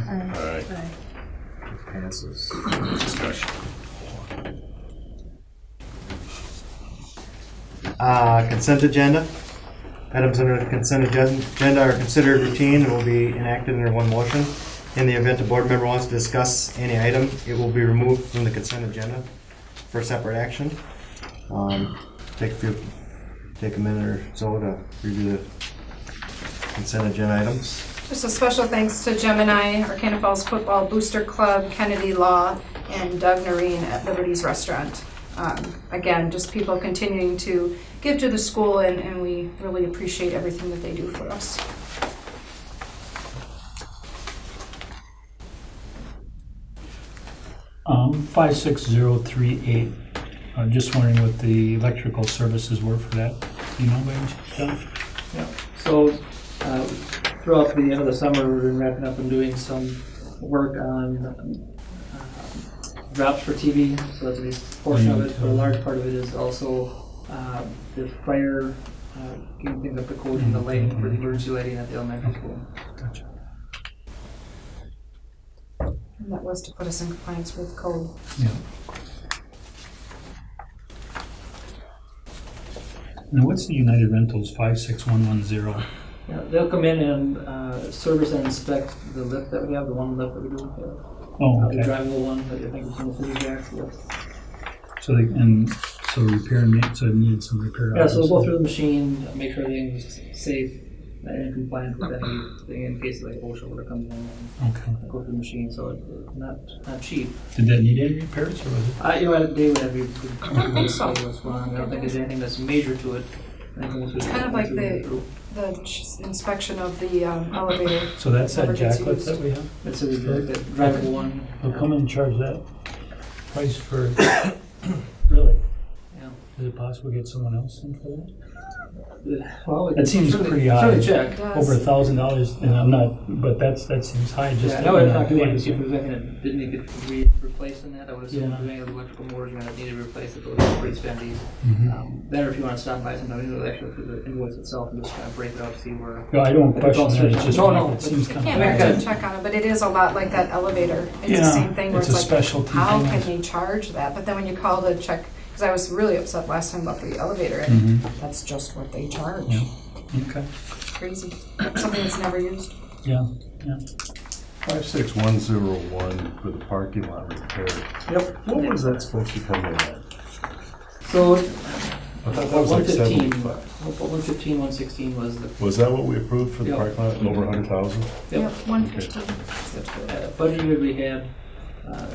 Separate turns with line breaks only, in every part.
All right,
Passes.
discussion.
Uh, Consent agenda. Items under the consent agen- agenda are considered routine and will be enacted under one motion. In the event a board member wants to discuss any item, it will be removed from the consent agenda for separate action. Um, Take a few, take a minute or so to review the consent agenda items.
Just a special thanks to Gemini, Arcana Falls Football Booster Club, Kennedy Law, and Doug Noreen at Liberty's Restaurant. Um, Again, just people continuing to give to the school, and, and we really appreciate everything that they do for us.
Um, five six zero three eight. I'm just wondering what the electrical services were for that. Do you know by any chance, John?
So uh, throughout the end of the summer, we've been wrapping up and doing some work on um, uh, drops for TV. So that's a big portion of it, but a large part of it is also uh, the fire, uh, getting things up to code and the lighting for the emergency lighting at the elementary school.
Gotcha.
And that was to put us in compliance with code.
Yeah. Now, what's the United Rentals five six one one zero?
Yeah, They'll come in and uh, service and inspect the lift that we have, the one lift that we do have.
Oh,
Uh, The
okay.
drivable one that I think is in the city jack lift.
So they, and so repair and ma- so it needed some repair.
Yeah, so we'll go
obviously.
through the machine, make sure everything's safe and in compliance with anything in case like OSHA order comes in and
Okay.
go through the machine, so it's not, not cheap.
Did that need any repairs or was it?
I, you know, they would have, you
don't think so.
what's wrong, I don't think there's anything that's major to it. It's
kind of like the- The ch- inspection of the um, elevator,
So that's that
Never gets
jacklet that
used.
we have?
That's a, the drivable one.
They'll come and charge that price for, really?
Yeah.
Is it possible to get someone else in for that?
Well, we
That seems
certainly-
pretty odd.
Certainly
it
check.
over a
does,
thousand dollars, and I'm not, but that's, that seems high, just.
Yeah, I know it's not
doing
gonna, if
it.
it was like, a- didn't it get re- replaced in that, I would assume
Yeah.
doing electrical motors, you're gonna need to replace it, those are pretty spendy.
Mm-hmm.
Mhm.
Um, Better if you want to stop by sometime, you know, actually through the invoice itself and just kind of break it up, see where.
No, I don't
But
question
it's
that,
also-
it's just,
No, no,
it seems
it
I
kind
can't
of.
Yeah,
actually
good.
check on it, but it is a lot like that elevator. It's the
Yeah,
same thing where
it's a
it's like,
specialty
how
thing,
can
I-
they charge that? But then when you call to check, because I was really upset last time about the elevator, and
Mhm.
That's just what they charge.
Yeah. Okay,
Crazy. Something that's never used.
yeah,
56101 for the parking lot repair.
Yep.
What was that supposed to come in at?
So,
I thought that was
one
like
fifteen,
75.
one fifteen, one sixteen was the
Was that what we approved for the
Yeah.
parking lot, over 100,000?
Yep.
One fifteen.
uh, budget year we had, uh,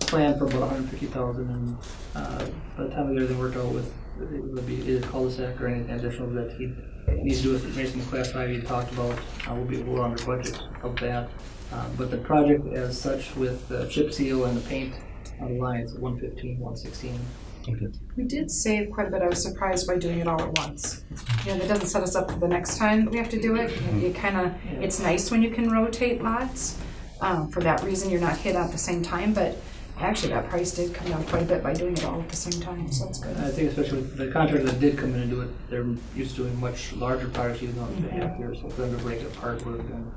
planned for about hundred fifty thousand and, uh, by the time we get everything worked out with, it would be either cul-de-sac or anything additional that he needs to do with Mason Class Five he talked about, uh, will be, we're under budget of that. Uh, but the project as such with the chip seal and the paint on the lines, one fifteen, one sixteen.
We did save quite a bit. I was surprised by doing it all at once. You know, that doesn't set us up for the next time that we have to do it. You kind of, it's nice when you can rotate lots. Um, for that reason, you're not hit at the same time, but actually that price did come down quite a bit by doing it all at the same time, so that's good.
I think especially with the contractor that did come in and do it, they're used to doing much larger projects, even though it's a half year, so for them to break it apart would have been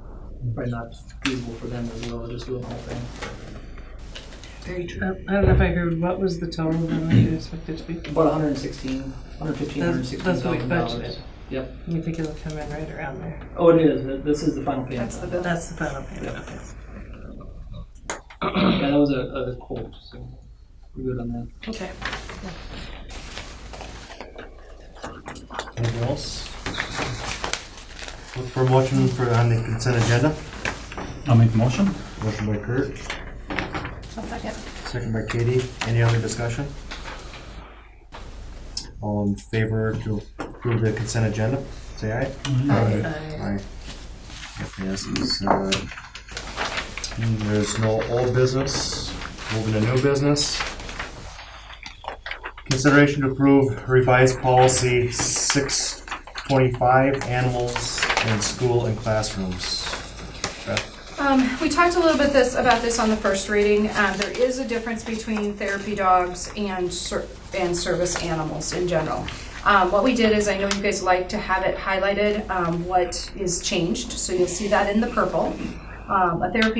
probably not feasible for them as well, just doing the whole thing.
Very true.
Uh, I don't know if I heard, what was the total amount you expected to be?
About 116, 115,
That's-
116
that's what we
thousand
budgeted.
dollars. Yep.
You think it'll come in right around there?
Oh, it is. This is the final payment.
That's the bill.
That's the final payment, okay.
Yeah, that was a, a quote, so we're good on that.
Okay.
Anything else? Look for a motion for, on the consent agenda.
I'll make a motion.
Motion by Kurt. second. by Katie. Any other discussion? All in favor to approve the consent agenda, say aye.
Mm-hmm.
Aye.
That passes. Uh, There's no old business. Moving to new business. Consideration to approve revised policy six twenty-five, animals in school and classrooms.
Um, we talked a little bit this, about this on the first reading. Um, there is a difference between therapy dogs and ser- and service animals in general. Um, what we did is, I know you guys like to have it highlighted, um, what is changed, so you'll see that in the purple. Um, a therapy